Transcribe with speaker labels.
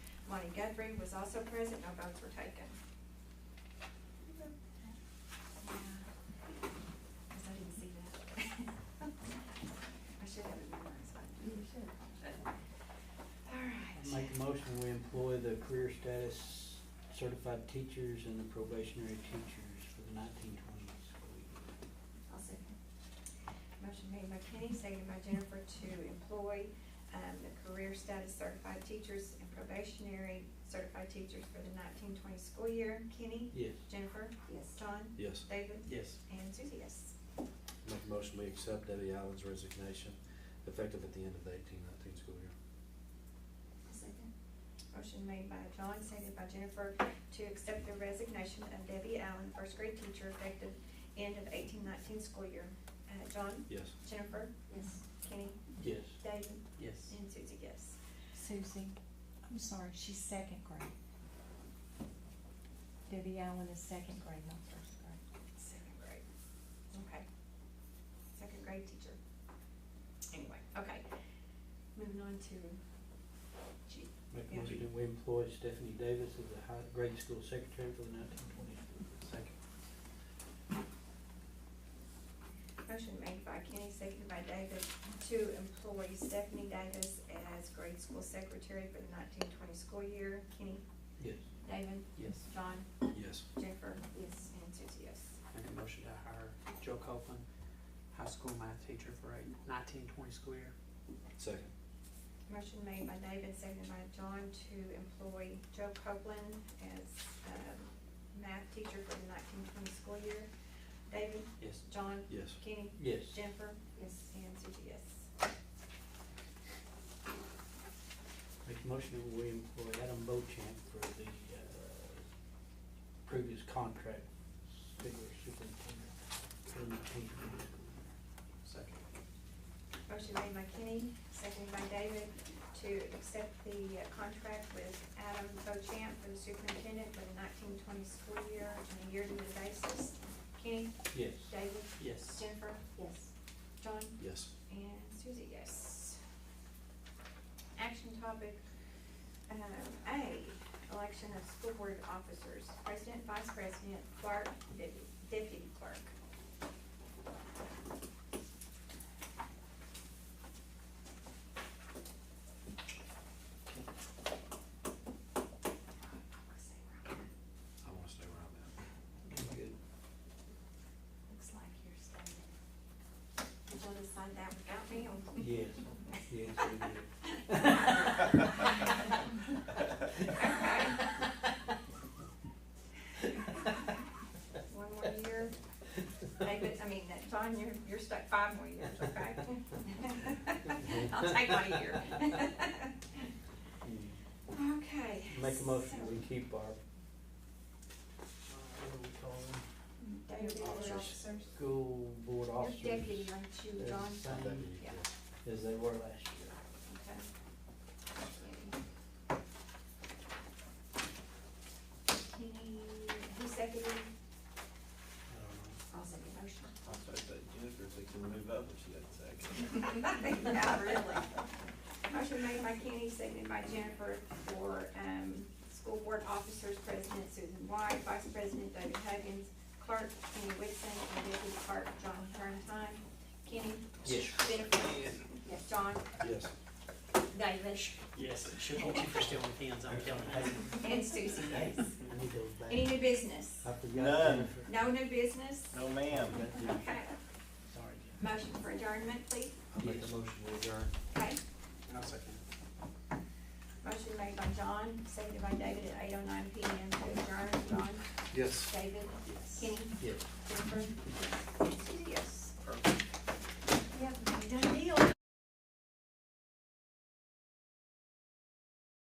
Speaker 1: Lonnie Guthrie was also present, no votes were taken. Guess I didn't see that. I should have it memorized, but. You should. All
Speaker 2: I
Speaker 1: right.
Speaker 2: Make a motion, we employ the career status certified teachers and the probationary teachers for the nineteen twenty school year.
Speaker 1: I'll second. Motion made by Kenny, seconded by Jennifer to employ, um, the career status certified teachers and probationary certified teachers for the nineteen twenty school year. Kenny?
Speaker 2: Yes.
Speaker 1: Jennifer? Yes. John?
Speaker 3: Yes.
Speaker 1: David?
Speaker 2: Yes.
Speaker 1: And Susie, yes.
Speaker 3: Make a motion, we accept Debbie Allen's resignation effective at the end of the eighteen nineteen school year.
Speaker 1: Second. Motion made by John, seconded by Jennifer, to accept the resignation of Debbie Allen, first grade teacher, effective end of eighteen nineteen school year. Uh, John?
Speaker 3: Yes.
Speaker 1: Jennifer? Yes. Kenny?
Speaker 2: Yes.
Speaker 1: David?
Speaker 2: Yes.
Speaker 1: And Susie, yes.
Speaker 4: Susie, I'm sorry, she's second grade. Debbie Allen is second grade, not first grade.
Speaker 1: Second grade. Okay. Second grade teacher. Anyway, okay. Moving on to G.
Speaker 2: Make a
Speaker 1: Yeah.
Speaker 2: motion, we employ Stephanie Davis as the high grade school secretary for the nineteen twenty school year.
Speaker 3: Second.
Speaker 1: Motion made by Kenny, seconded by David, to employ Stephanie Davis as grade school secretary for the nineteen twenty school year. Kenny?
Speaker 2: Yes.
Speaker 1: David?
Speaker 5: Yes.
Speaker 1: John?
Speaker 3: Yes.
Speaker 1: Jennifer? Yes. And Susie, yes.
Speaker 5: Make a motion to hire Joe Copeland, high school math teacher for a nineteen twenty school year.
Speaker 3: Second.
Speaker 1: Motion made by David, seconded by John, to employ Joe Copeland as, um, math teacher for the nineteen twenty school year. David?
Speaker 5: Yes.
Speaker 1: John?
Speaker 3: Yes.
Speaker 1: Kenny?
Speaker 2: Yes.
Speaker 1: Jennifer? Yes. And Susie, yes.
Speaker 2: Make a motion, we employ Adam Bochamp for the, uh, previous contract, figure superintendent for the nineteen twenty school year.
Speaker 3: Second.
Speaker 1: Motion made by Kenny, seconded by David, to accept the uh, contract with Adam Bochamp for the superintendent for the nineteen twenty school year on a yearly basis. Kenny?
Speaker 2: Yes.
Speaker 1: David?
Speaker 5: Yes.
Speaker 1: Jennifer? Yes. John?
Speaker 3: Yes.
Speaker 1: And Susie, yes. Action topic, um, A, election of school board officers, president, vice president, clerk, deputy- deputy clerk.
Speaker 3: I wanna stay where I'm at.
Speaker 2: Good.
Speaker 1: Looks like you're standing. Did you decide that without me? or-
Speaker 2: Yes, yes, we did.
Speaker 1: One more year, David, I mean, that- John, you're, you're stuck five more years, okay? I'll take my year. Okay.
Speaker 2: Make a motion,
Speaker 1: so-
Speaker 2: we keep our, uh, what do we call them?
Speaker 1: Deputy
Speaker 3: Officers.
Speaker 1: officers.
Speaker 2: School board
Speaker 1: Your
Speaker 2: officers.
Speaker 1: deputy, aren't you,
Speaker 2: They're
Speaker 1: John?
Speaker 2: the same
Speaker 1: Yeah.
Speaker 2: As they were last year.
Speaker 1: Okay. Kenny, who seconded? I'll second motion.
Speaker 6: I'll say that Jennifer thinks we'll move up, but she doesn't second.
Speaker 1: Yeah, really. Motion made by Kenny, seconded by Jennifer for, um, school board officers, President Susan White, Vice President David Huggins, Clerk Kenny Whitson, and Deputy Clerk John Turntime. Kenny?
Speaker 2: Yes.
Speaker 1: Jennifer? Yes. John?
Speaker 3: Yes.
Speaker 1: David?
Speaker 5: Yes, she'll hold you for stealing pins, I'm telling you.
Speaker 1: And Susie, yes.
Speaker 2: I need those back.
Speaker 1: Any new business?
Speaker 2: I forgot
Speaker 6: None.
Speaker 2: Jennifer.
Speaker 1: No new business?
Speaker 6: No, ma'am.
Speaker 1: Okay.
Speaker 2: Sorry,
Speaker 1: Motion for adjournment, please.
Speaker 3: I'll make a
Speaker 2: Yes.
Speaker 3: motion, we adjourn.
Speaker 1: Okay.
Speaker 5: And I'll second.
Speaker 1: Motion made by John, seconded by David at eight oh nine P M to adjourn. John?
Speaker 3: Yes.
Speaker 1: David?
Speaker 5: Yes.
Speaker 1: Kenny?
Speaker 2: Yes.
Speaker 1: Jennifer?